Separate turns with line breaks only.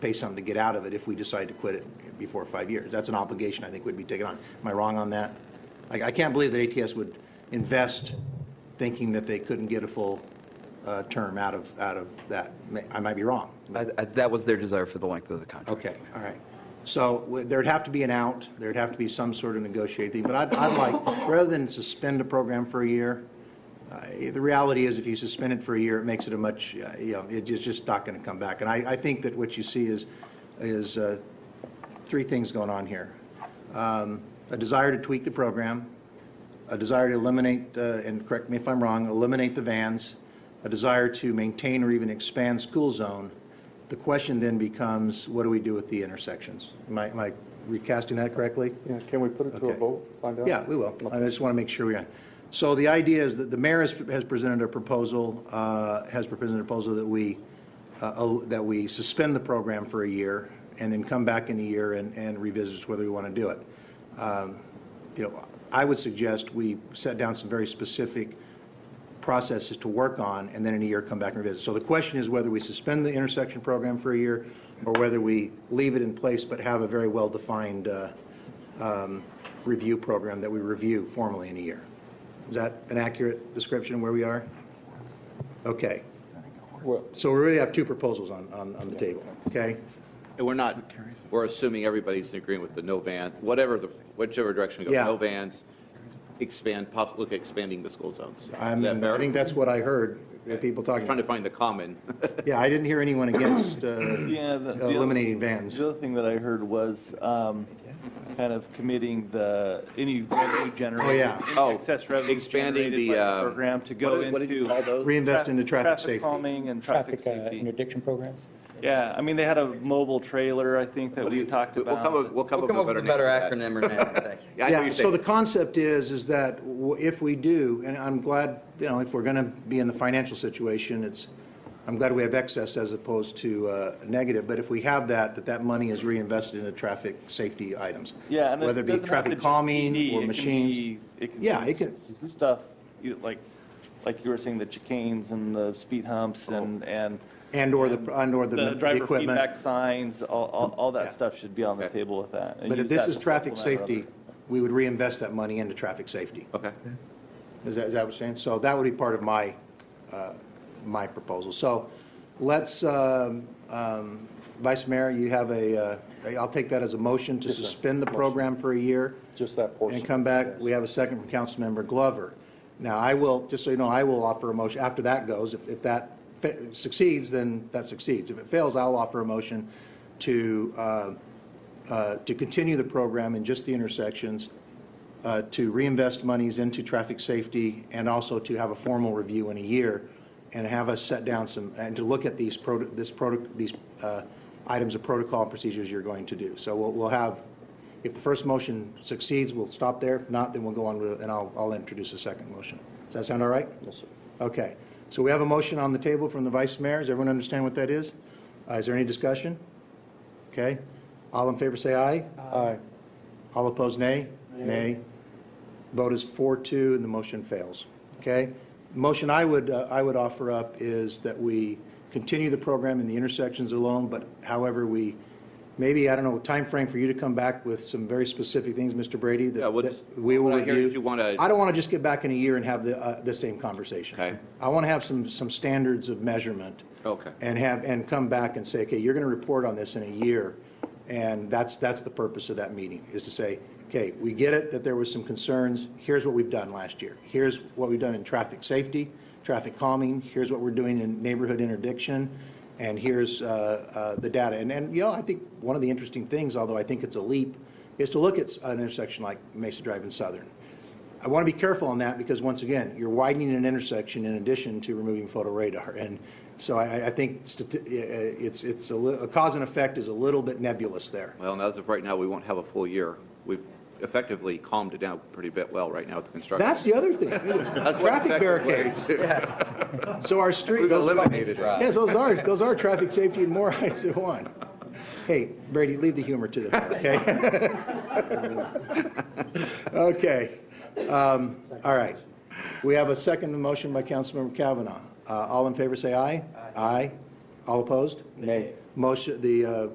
pay something to get out of it if we decide to quit it before five years. That's an obligation I think would be taken on. Am I wrong on that? Like, I can't believe that ATS would invest thinking that they couldn't get a full uh, term out of, out of that. May- I might be wrong.
I, I, that was their desire for the length of the contract.
Okay, all right. So w- there'd have to be an out, there'd have to be some sort of negotiating, but I'd, I'd like, rather than suspend a program for a year, uh, the reality is if you suspend it for a year, it makes it a much, uh, you know, it- it's just not going to come back. And I, I think that what you see is, is uh, three things going on here. Um, A desire to tweak the program, a desire to eliminate, uh, and correct me if I'm wrong, eliminate the vans, a desire to maintain or even expand school zone, the question then becomes, what do we do with the intersections? Am I, am I recasting that correctly?
Yeah, can we put it to a
Okay.
vote, find out?
Yeah, we will. I just want to make sure we are. So the idea is that the mayor has has presented a proposal, uh, has presented a proposal that we, uh, al- that we suspend the program for a year and then come back in a year and and revisit whether we want to do it. Um, You know, I would suggest we set down some very specific processes to work on, and then in a year come back and revisit. So the question is whether we suspend the intersection program for a year, or whether we leave it in place but have a very well-defined uh, um, review program that we review formally in a year. Is that an accurate description of where we are? Okay.
Well,
So we really have two proposals on, on on the table, okay?
And we're not, we're assuming everybody's in agreement with the no van, whatever the, whichever direction we
Yeah.
go, no vans, expand, poss- look at expanding the school zones. Is
I'm,
that fair?
I think that's what I heard, uh, people talking.
Trying to find the common.
Yeah, I didn't hear anyone against uh,
Yeah, the- the other-
eliminating vans.
The other thing that I heard was um, kind of committing the, any revenue
Oh,
generated,
yeah.
any excess revenue
expanding
generated
the,
by the
uh,
program to
What
go
did- What did you
into
call those?
Reinvest into traffic safety.
traffic calming and traffic
traffic uh,
safety.
interdiction programs.
Yeah, I mean, they had a mobile trailer, I think, that
What do
we
you-
talked
we'll come up-
about.
We'll come
We'll
up
come up
with
with a
name
better
for that.
acronym or name today.
Yeah, I know what you're
So the
saying.
concept is, is that w- if we do, and I'm glad, you know, if we're going to be in the financial situation, it's, I'm glad we have excess as opposed to uh, negative, but if we have that, that that money is reinvested into traffic safety items.
Yeah, and it
Whether it be
doesn't have to
traffic
just
calming
PD,
or
it can
machines.
be- It can
Yeah,
be
it can-
s- stuff, you- like, like you were saying, the chicanes and the speed humps
Oh.
and, and
And/or the, and/or the
the
the
driver feedback
equipment.
signs, all, all- all
Yeah.
that stuff should be on the
Okay.
table with that. and
But if
use
this
that
is
to
traffic
supplement
safety, we would reinvest that money into traffic safety.
Okay.
Is that, is that what you're saying? So that would be part of my, uh, my proposal. So let's, um, um, Vice Mayor, you have a, uh, I'll take that as a motion to
Yes, sir.
suspend the program for a year
just that portion.
and come back. We have a second from Councilmember Glover. Now, I will, just so you know, I will offer a motion, after that goes, if, if that fa- succeeds, then that succeeds. If it fails, I'll offer a motion to, uh, uh, to continue the program in just the intersections, uh, to reinvest monies into traffic safety, and also to have a formal review in a year, and have us set down some, and to look at these, proto- this product, these uh, items of protocol and procedures you're going to do. So we'll, we'll have, if the first motion succeeds, we'll stop there. If not, then we'll go on, with it, and I'll, I'll introduce a second motion. Does that sound all right? Yes, sir. Okay. So we have a motion on the table from the vice mayor. Does everyone understand what that is? Uh, Is there any discussion? Okay. All in favor, say aye.
Aye.
All opposed, nay? Nay. Vote is 4-2, and the motion fails. Okay? Motion I would, uh, I would offer up is that we continue the program in the intersections alone, but however, we, maybe, I don't know, time frame for you to come back with some very specific things, Mr. Brady,
Yeah,
that
what-
that we will
what I
review.
hear is you wanna-
I don't want to just get back in a year and have the, uh, the same conversation.
Okay. Oh,
I want to have some, some standards of measurement.
Okay.
And have, and come back and say, okay, you're going to report on this in a year. And that's, that's the purpose of that meeting, is to say, okay, we get it that there was some concerns. Here's what we've done last year. Here's what we've done in traffic safety, traffic calming. Here's what we're doing in neighborhood interdiction. And here's uh, uh, the data. And, and, you know, I think one of the interesting things, although I think it's a leap, is to look at an intersection like Mesa Drive and Southern. I want to be careful on that because, once again, you're widening an intersection in addition to removing photo radar. And so I, I think stati- eh, eh, it's, it's a, li- a cause and effect is a little bit nebulous there.
Well, and as of right now, we won't have a full year. We've effectively calmed it down pretty bit well right now with the construction.
That's the other thing.
That's what
Traffic
effective way
barricades.
to-
So our street.
We've
those-
eliminated it.
Yes, those are, those are traffic safety and more eyes at one. Hey, Brady, leave the humor to the, fair, okay? Okay. Um, All right. We have a second motion by Councilmember Kavanaugh. Uh, All in favor, say aye. Aye. All opposed?
Nay.
Motion, the uh,